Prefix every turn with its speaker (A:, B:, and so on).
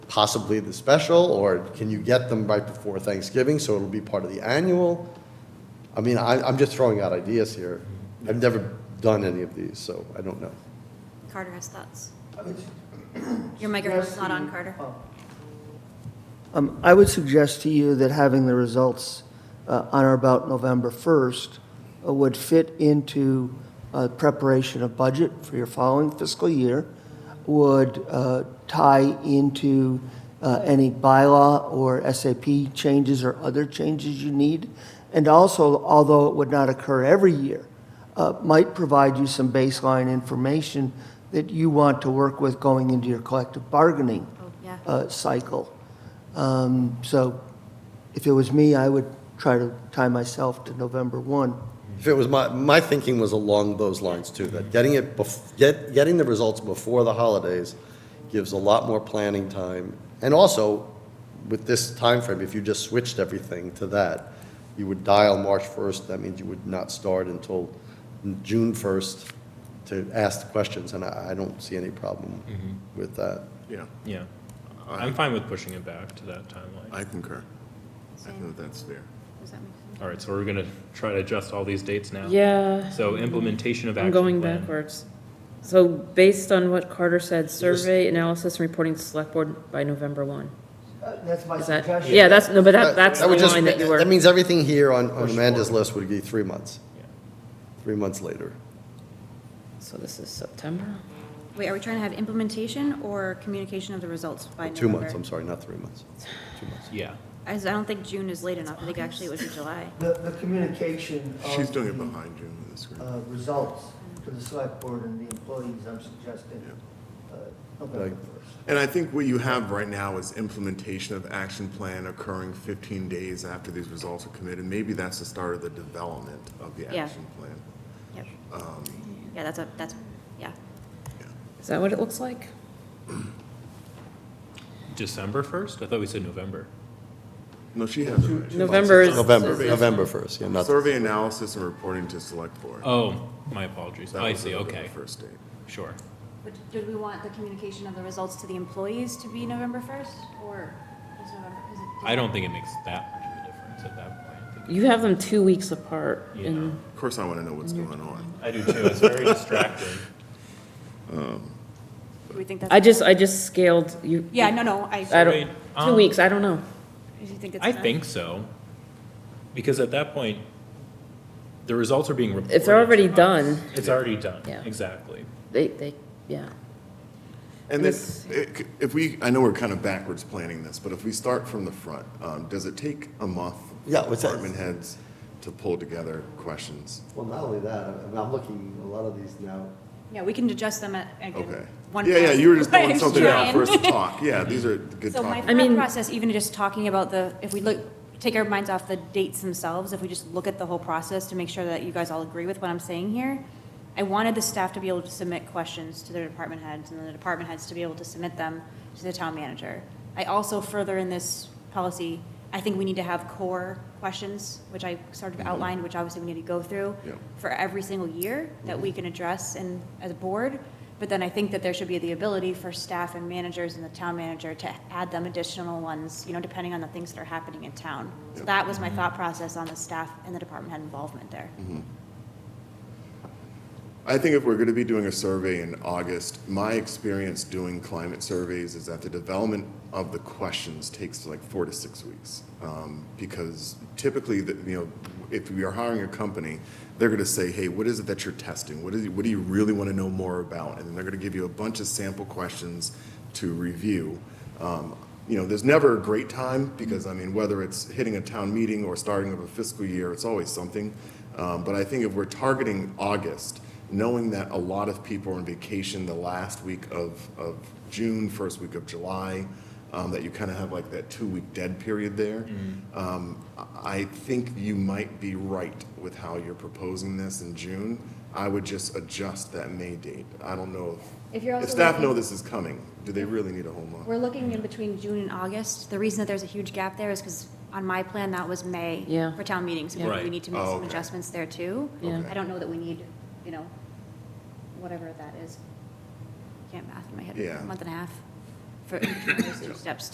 A: possibly the special, or can you get them right before Thanksgiving, so it'll be part of the annual? I mean, I, I'm just throwing out ideas here. I've never done any of these, so I don't know.
B: Carter has thoughts.
C: I would
B: Your microphone's not on,
C: suggest
B: Carter.
C: to you- oh. Um, I would suggest to you that having the results uh, on or about November 1st uh, would fit into uh, preparation of budget for your following fiscal year, would uh, tie into uh, any bylaw or SAP changes or other changes you need, and also, although it would not occur every year, uh, might provide you some baseline information that you want to work with going into your collective bargaining
B: Oh, yeah.
C: uh, cycle. Um, So if it was me, I would try to tie myself to November 1.
A: If it was my, my thinking was along those lines too, that getting it, bef- get, getting the results before the holidays gives a lot more planning time. And also, with this time frame, if you just switched everything to that, you would dial March 1st, that means you would not start until June 1st to ask the questions, and I, I don't see any problem with that.
D: Yeah,
E: Yeah,
D: I-
E: I'm fine with pushing it back to that timeline.
D: I concur. I
B: Same.
D: think that's fair.
B: Does that make sense?
E: All right, so we're gonna try to adjust all these dates now?
F: Yeah,
E: So implementation of
F: I'm
E: action
F: going
E: plan.
F: backwards. So based on what Carter said, survey analysis and reporting to select board by November one.
C: Uh, That's my
F: Is that, yeah, that's, no, but that, that's the
A: would just
F: line that
A: ma-
F: you were.
A: That means everything here on, on Amanda's list would be three months, three months later.
F: So this is September?
B: Wait, are we trying to have implementation or communication of the results by November?
A: Two months, I'm sorry, not three months, two months.
E: Yeah,
B: I s- I don't think June is late enough. I think actually it would be July.
C: The, the communication
E: Oh,
C: uh,
D: She's doing it
E: mm-hmm.
D: behind you with the screen.
C: results to the select board and the employees, I'm suggesting uh,
A: November
D: And I think what you have right now is implementation of action plan occurring 15 days after these results are committed. Maybe that's the start of the development of the
B: Yeah.
D: action plan.
B: Yep.
D: Um,
B: Yeah, that's a, that's, yeah.
F: Is that what it looks like?
E: December first? I thought we said November.
D: No, she has it right.
F: November is.
A: November,
F: is-
A: November 1st, yeah, not,
D: Survey analysis and reporting to select board.
E: Oh, my apologies.
D: That
E: I
D: was the
E: see, okay,
D: First date.
E: sure.
B: But did we want the communication of the results to the employees to be November 1st or is November, is it?
E: I don't think it makes that much of a difference at that point. I think
F: You have them two weeks apart and
D: Of course, I want to know what's
B: Mm-hmm.
D: going on.
E: I do too, it's very distracting.
B: Do we think that's?
F: I just, I just scaled you.
B: Yeah, no, no, I,
F: I
B: do
F: don't, two
E: Um,
F: weeks, I don't know.
B: you think it's
E: I
B: enough?
E: think so, because at that point, the results are being reported.
F: If they're already
E: to us.
F: done,
E: It's already done,
F: Yeah.
E: exactly.
F: they, they, yeah.
D: And
F: This-
D: this, it- if we, I know we're kind of backwards planning this, but if we start from the front, um, does it take a month? for
A: Yeah, what's that?
D: Department heads to pull together questions?
A: well, not only that, I mean, I'm looking, a lot of these now,
B: Yeah, we can adjust them at,
D: Okay.
B: again. one
D: Yeah, yeah,
B: pass.
D: you were just
B: Right,
D: throwing something out
B: trying.
D: for us to talk. Yeah, these are good
B: So my
D: talking.
F: I
B: thought
F: mean-
B: process, even just talking about the, if we look, take our minds off the dates themselves, if we just look at the whole process to make sure that you guys all agree with what I'm saying here, I wanted the staff to be able to submit questions to their department heads and then the department heads to be able to submit them to the town manager. I also further in this policy, I think we need to have core questions, which I sort of outlined, which obviously we need to go through
D: Mm-hmm. Yeah.
B: for every single year that we can address and, as a board. But then I think that there should be the ability for staff and managers and the town manager to add them additional ones, you know, depending on the things that are happening in town. So that was my thought process on the staff and the department head involvement there.
D: Mm-hmm. I think if we're going to be doing a survey in August, my experience doing climate surveys is that the development of the questions takes like four to six weeks. Um, because typically, the, you know, if we are hiring a company, they're going to say, hey, what is it that you're testing? What, is, what do you really want to know more about? And then they're going to give you a bunch of sample questions to review. Um, you know, there's never a great time because, I mean, whether it's hitting a town meeting or starting of a fiscal year, it's always something. Um, but I think if we're targeting August, knowing that a lot of people are on vacation the last week of, of June, first week of July, um, that you kind of have like that two week dead period there, um, I I think you might be right with how you're proposing this in June. I would just adjust that May date. I don't know
B: If you're
D: if, if
B: also
D: staff
B: looking-
D: know this is coming, do they really need a whole month?
B: We're looking in between June and August. The reason that there's a huge gap there is because on my plan, that was May
F: Yeah.
B: for town meetings. So maybe
E: Right.
B: we need to make
D: Oh,
B: some
D: okay.
B: adjustments there too.
F: Yeah.
B: I don't know that we need, you know, whatever that is. Can't math in my head,
D: Yeah.
B: a month and a half. for each of those two steps